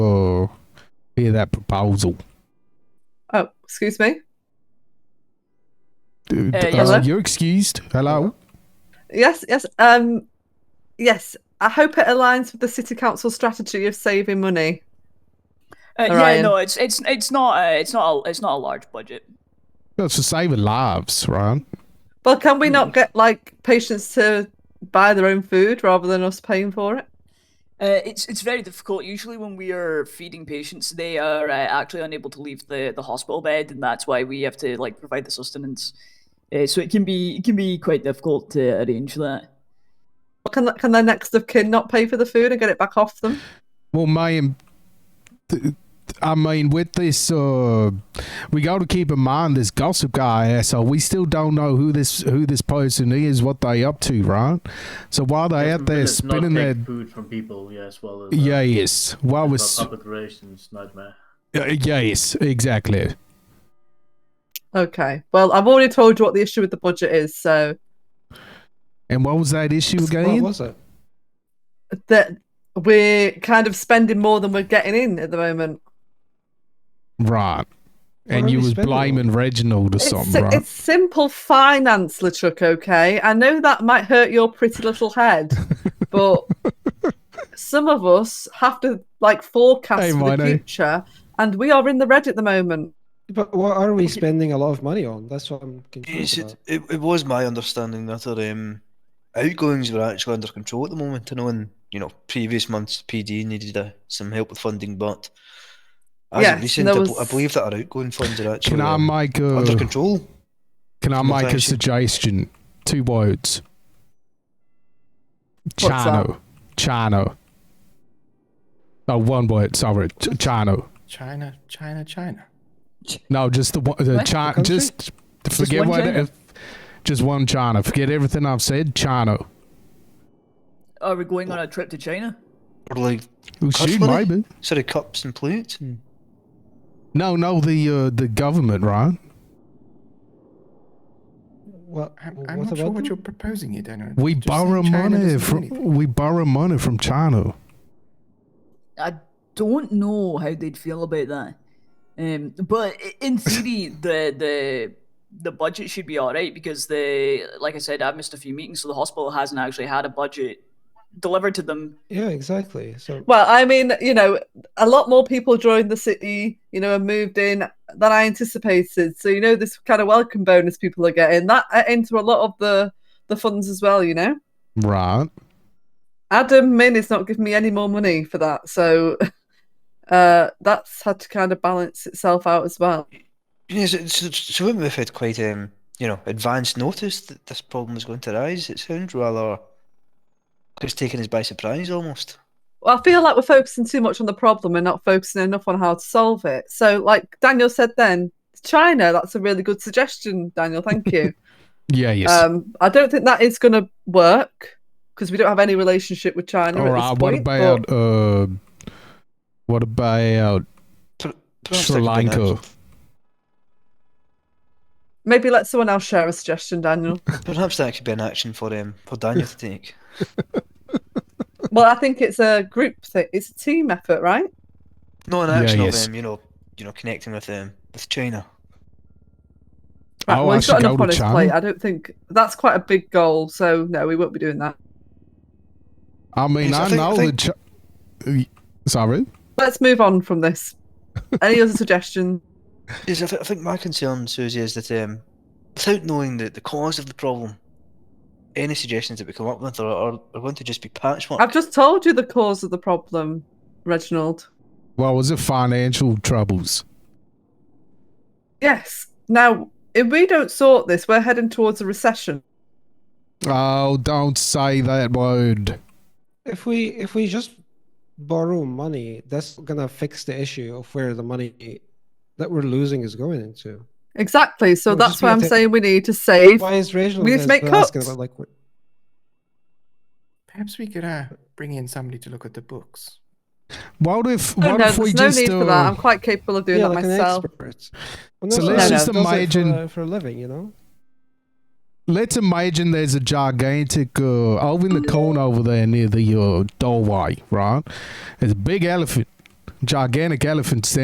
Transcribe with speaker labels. Speaker 1: Oh, hear that proposal.
Speaker 2: Oh, excuse me.
Speaker 1: Uh,
Speaker 3: yes.
Speaker 1: you're excused. Hello.
Speaker 2: Yes, yes. Um, yes. I hope it aligns with the city council strategy of saving money.
Speaker 3: Uh, yeah,
Speaker 2: Orion.
Speaker 3: no, it's it's it's not uh, it's not a it's not a large budget.
Speaker 1: That's for saving lives, right?
Speaker 2: Well, can we not get like patients to buy their own food rather than us paying for it?
Speaker 3: Uh, it's it's very difficult. Usually, when we are feeding patients, they are uh, actually unable to leave the, the hospital bed, and that's why we have to like provide the sustenance. Uh, so it can be it can be quite difficult to arrange that.
Speaker 2: Can can their next of kin not pay for the food and get it back off them?
Speaker 1: Well, man, th- I mean, with this, uh, we got to keep in mind this gossip guy asshole. We still don't know who this who this person is, what they up to, right? So while they out there
Speaker 4: It's not
Speaker 1: spinning
Speaker 4: take
Speaker 1: their
Speaker 4: food from people, yeah, as well as uh,
Speaker 1: yes, while we're
Speaker 4: about
Speaker 1: s-
Speaker 4: public relations nightmare.
Speaker 1: uh, yes, exactly.
Speaker 2: Okay. Well, I've already told you what the issue with the budget is. So
Speaker 1: And what was that issue
Speaker 5: What
Speaker 1: again?
Speaker 5: was it?
Speaker 2: that we're kind of spending more than we're getting in at the moment.
Speaker 1: Right.
Speaker 5: are
Speaker 1: And you
Speaker 5: we
Speaker 1: was
Speaker 5: spending on?
Speaker 1: blaming Reginald or
Speaker 2: It's,
Speaker 1: something,
Speaker 2: si-
Speaker 1: right?
Speaker 2: it's simple finance, LeChuck, okay? I know that might hurt your pretty little head, but some of us have to like forecast
Speaker 1: Hey,
Speaker 2: for the
Speaker 1: Mino.
Speaker 2: future, and we are in the red at the moment.
Speaker 5: But what are we spending a lot of money on? That's what I'm confused
Speaker 6: Yes,
Speaker 5: about.
Speaker 6: it, it, it was my understanding that our um, outgoings were actually under control at the moment. I know in you know previous months PD needed uh, some help with funding, but as
Speaker 2: Yes,
Speaker 6: of recent,
Speaker 2: there
Speaker 6: I, bel- I
Speaker 2: was-
Speaker 6: believe that our outgoing funds are actually
Speaker 1: can I
Speaker 6: um,
Speaker 1: make
Speaker 6: under
Speaker 1: a
Speaker 6: control.
Speaker 1: can I make a
Speaker 6: Conversation.
Speaker 1: suggestion? Two words.
Speaker 2: What's that?
Speaker 1: Chano. Chano. Oh, one word. Sorry, Ch- Chano.
Speaker 5: China, China, China.
Speaker 1: No, just the one. The
Speaker 3: What?
Speaker 1: chi-
Speaker 5: Country?
Speaker 1: just forget
Speaker 3: one
Speaker 1: what.
Speaker 3: China?
Speaker 1: If, just one China. Forget everything I've said. China.
Speaker 3: Are we going on a trip to China?
Speaker 6: Or like
Speaker 1: Well,
Speaker 6: Cuss
Speaker 1: shoot,
Speaker 6: money?
Speaker 1: maybe.
Speaker 6: sorry, cups and plates. And
Speaker 1: No, no. The uh, the government, right?
Speaker 5: What?
Speaker 7: I'm,
Speaker 5: what
Speaker 7: I'm not sure
Speaker 5: about
Speaker 7: what
Speaker 5: them?
Speaker 7: you're proposing here, Daniel.
Speaker 1: We
Speaker 7: Just saying
Speaker 1: borrow
Speaker 7: China
Speaker 1: money
Speaker 7: doesn't do
Speaker 1: from
Speaker 7: anything.
Speaker 1: we borrow money from China.
Speaker 3: I don't know how they'd feel about that. Um, but i- in theory, the the the budget should be all right because the like I said, I've missed a few meetings, so the hospital hasn't actually had a budget delivered to them.
Speaker 5: Yeah, exactly. So
Speaker 2: Well, I mean, you know, a lot more people joined the city, you know, and moved in than I anticipated. So, you know, this kind of welcome bonus people are getting that uh, into a lot of the the funds as well, you know.
Speaker 1: Right.
Speaker 2: Adam Min is not giving me any more money for that, so uh, that's had to kind of balance itself out as well.
Speaker 6: Yes, it's- it's- so when we've had quite um, you know advanced notice that this problem was going to arise, it sounds rather it's taken us by surprise almost.
Speaker 2: Well, I feel like we're focusing too much on the problem and not focusing enough on how to solve it. So, like Daniel said, then China, that's a really good suggestion, Daniel. Thank you.
Speaker 1: Yeah. Yes.
Speaker 2: um, I don't think that is going to work because we don't have any relationship with China.
Speaker 1: All
Speaker 2: at this
Speaker 1: right. What
Speaker 2: point,
Speaker 1: about
Speaker 2: but-
Speaker 1: uh? What about
Speaker 6: Per- perhaps
Speaker 1: Sri
Speaker 6: that could be an
Speaker 1: Lanka?
Speaker 6: action-
Speaker 2: Maybe let someone else share a suggestion, Daniel.
Speaker 6: Perhaps that could be an action for um, for Daniel to take.
Speaker 2: well, I think it's a group thing. It's a team effort, right?
Speaker 6: No, an
Speaker 1: Yeah,
Speaker 6: action of
Speaker 1: yes.
Speaker 6: um, you know, you know, connecting with um, with China.
Speaker 2: Right,
Speaker 1: Oh,
Speaker 2: well,
Speaker 1: I
Speaker 2: he's
Speaker 1: should
Speaker 2: got
Speaker 1: go
Speaker 2: enough
Speaker 1: to
Speaker 2: on his
Speaker 1: China.
Speaker 2: plate. I don't think that's quite a big goal, so no, we won't be doing that.
Speaker 1: I mean,
Speaker 6: Yes, I
Speaker 1: I,
Speaker 6: think- I
Speaker 1: know
Speaker 6: think-
Speaker 1: that. Chi- Sorry.
Speaker 2: Let's move on from this. Any other suggestions?
Speaker 6: Yes, I, th- I think my concern, Susie, is that um, without knowing the, the cause of the problem, any suggestions that we come up with are, are, are going to just be patchwork.
Speaker 2: I've just told you the cause of the problem, Reginald.
Speaker 1: Well, was it financial troubles?
Speaker 2: Yes. Now, if we don't sort this, we're heading towards a recession.
Speaker 1: Oh, don't say that word.
Speaker 5: if we if we just borrow money, that's gonna fix the issue of where the money that we're losing is going into.
Speaker 2: Exactly. So
Speaker 5: Well,
Speaker 2: that's
Speaker 5: just
Speaker 2: why
Speaker 5: be
Speaker 2: I'm
Speaker 5: atta-
Speaker 2: saying we need to save.
Speaker 5: Why is Reginald
Speaker 2: We need to
Speaker 5: as-
Speaker 2: make
Speaker 5: asking
Speaker 2: cuts.
Speaker 5: about like what-
Speaker 7: Perhaps we could uh, bring in somebody to look at the books.
Speaker 1: What if?
Speaker 2: Oh,
Speaker 1: What
Speaker 2: no,
Speaker 1: if we
Speaker 2: there's no
Speaker 1: just?
Speaker 2: need
Speaker 1: uh,
Speaker 2: for that. I'm quite capable of doing
Speaker 5: yeah,
Speaker 2: that
Speaker 5: like
Speaker 2: myself.
Speaker 5: an expert? Well, no,
Speaker 1: So
Speaker 5: no,
Speaker 2: let's
Speaker 5: no,
Speaker 2: just
Speaker 5: does it
Speaker 1: imagine-
Speaker 5: for, uh, for a living, you know.
Speaker 1: Let's imagine there's a gigantic uh, over in the corner over there near the uh, doorway, right? There's a big elephant, gigantic elephant standing.